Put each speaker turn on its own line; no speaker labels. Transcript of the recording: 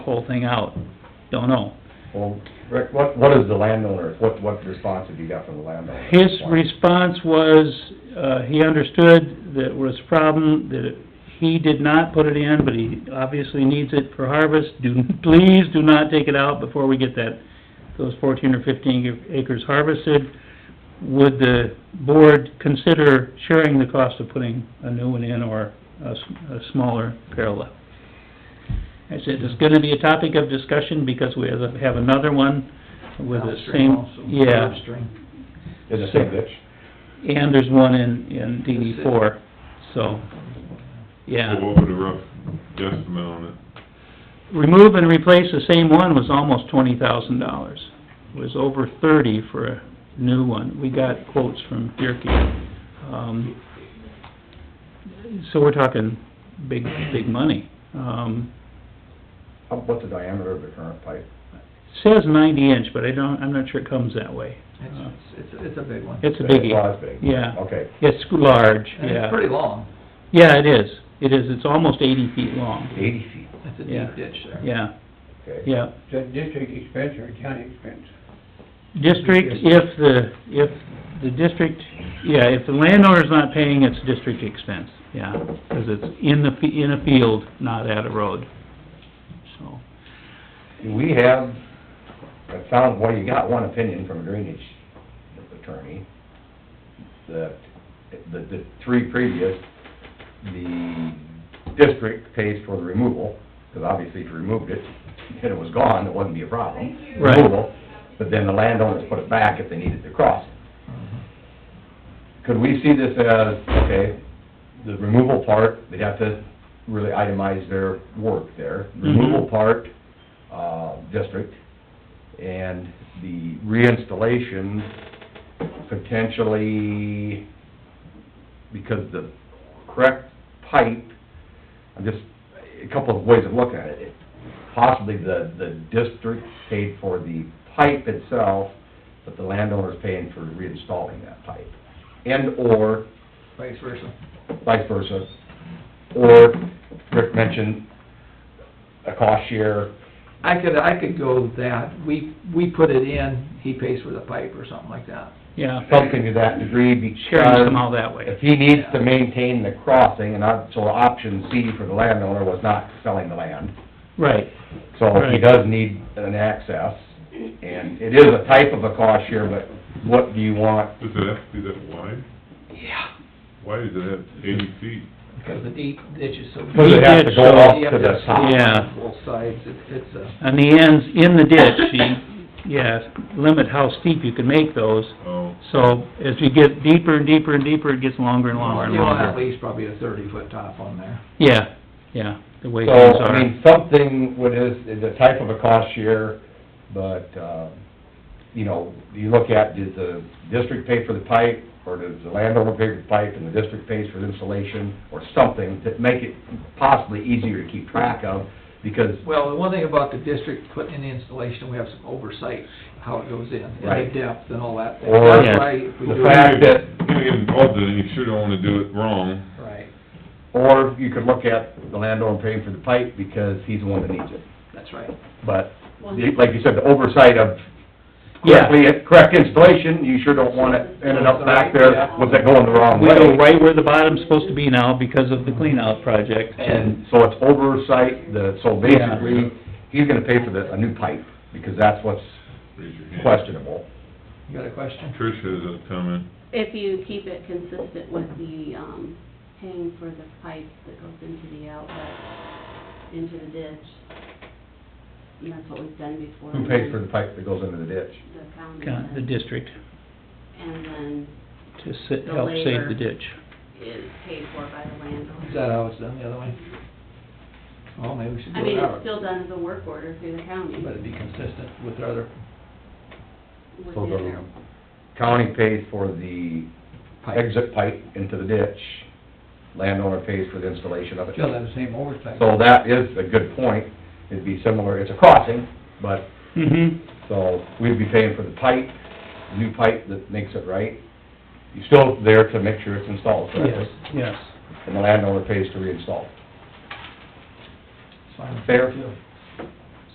whole thing out, don't know.
Well, Rick, what, what is the landowner, what, what response have you got from the landowner?
His response was, uh, he understood that it was a problem, that it- he did not put it in, but he obviously needs it for harvest. Do, please do not take it out before we get that, those fourteen or fifteen acres harvested. Would the board consider sharing the cost of putting a new one in or a, s- a smaller parallel? I said, it's gonna be a topic of discussion because we have have another one with the
Downstream
same,
also,
yeah.
upstream.
It's the same ditch.
And there's one in, in DD four, so, yeah.
So what would a rough guesstimate on it?
Remove and replace the same one was almost twenty thousand dollars. It was over thirty for a new one. We got quotes from Bierke. Um, so we're talking big, big money. Um,
How- What's the diameter of the current pipe?
says ninety inch, but I don't, I'm not sure it comes that way. Uh,
It's, it's, it's a big one.
It's a biggie.
Well, that's big.
Yeah.
Okay,
It's large,
And it's
yeah.
pretty long.
Yeah, it is. It is. It's almost eighty feet long.
eighty feet,
It's a
Yeah.
deep ditch there.
Yeah,
okay.
yeah.
Is that district expense or county expense?
District, if the, if the district, yeah, if the landowner's not paying, it's district expense, yeah, because it's in the, fe- in a field, not at a road, so.
Do we have, I found, well, you got one opinion from a drainage attorney, that, the, the three previous, the district pays for the removal, because obviously if you removed it, and it was gone, it wouldn't be a problem.
Right.
Removal, But then the landowners put it back if they needed to cross it.
Mm-hmm.
Could we see this as, okay, the removal part, they'd have to really itemize their work there. Removal part, uh, district, and the reinstallation potentially, because the correct pipe, I'm just, a couple of ways of looking at it. Possibly the, the district paid for the pipe itself, but the landowner's paying for reinstalling that pipe. And/or
Vice versa.
vice versa. Or, Rick mentioned a cost share,
I could, I could go with that. We, we put it in, he pays for the pipe or something like that.
Yeah,
something to that degree
sharing
because
somehow that way,
if he needs to maintain the crossing, and not- so option C for the landowner was not selling the land.
right,
So he
Right.
does need an access, and it is a type of a cost share, but what do you want?
Does it have to be that wide?
Yeah.
Why does it have eighty feet?
Because the deep ditch is so.
Does it have to go up
You
to
have
the top?
Yeah.
Both sides, It- it's a,
on the ends, in the ditch, you, yeah, limit how steep you can make those,
Oh,
so as you get deeper and deeper and deeper, it gets longer and longer and
you want at
longer.
least probably a thirty foot top on there.
Yeah, yeah, the way
So,
things
I
are,
mean, something with this, the type of a cost share, but, uh, you know, you look at, does the district pay for the pipe, or does the landowner pay for the pipe, and the district pays for the installation, or something to make it possibly easier to keep track of, because,
Well, the one thing about the district putting in the installation, we have some oversight, how it goes in, and the
Right.
depth and all that.
Or-
That's why if we
The
do it-
fact that-
You're getting involved in it, you sure don't wanna do it wrong.
Right,
or you could look at the landowner paying for the pipe because he's the one that needs it.
that's right.
But, the- like you said, the oversight of
Yeah.
correctly, correct installation, you sure don't want it ending up back there with it going the wrong
we
way.
go right where the bottom's supposed to be now because of the clean-out project,
And so it's oversight, the, so basically, he's gonna pay for the, a new pipe, because that's what's
Raise your hand.
questionable.
You got a question?
Trish has a comment.
If you keep it consistent with the, um, paying for the pipe that goes into the outlet, into the ditch, and that's what we've done before.
Who pays for the pipe that goes into the ditch?
The county.
kind of the
does.
district,
And then
to sa- help save the ditch.
it's paid for by the
Is
landowner.
that how it's done the other way? Well, maybe we should do
I
it
mean,
that way.
it's still done as a work order through the county.
But it'd be consistent with our other
So
within
the
their-
county pays for the
pipes.
exit pipe into the ditch, landowner pays for the installation of it.
Still have the same oversight.
So that is a good point, it'd be similar, it's a crossing, but,
Mm-hmm.
so we'd be paying for the pipe, new pipe that makes it right. You're still there to make sure it's installed
Yes,
correctly,
yes.
and the landowner pays to reinstall.
It's fine.
Fair?
Yeah.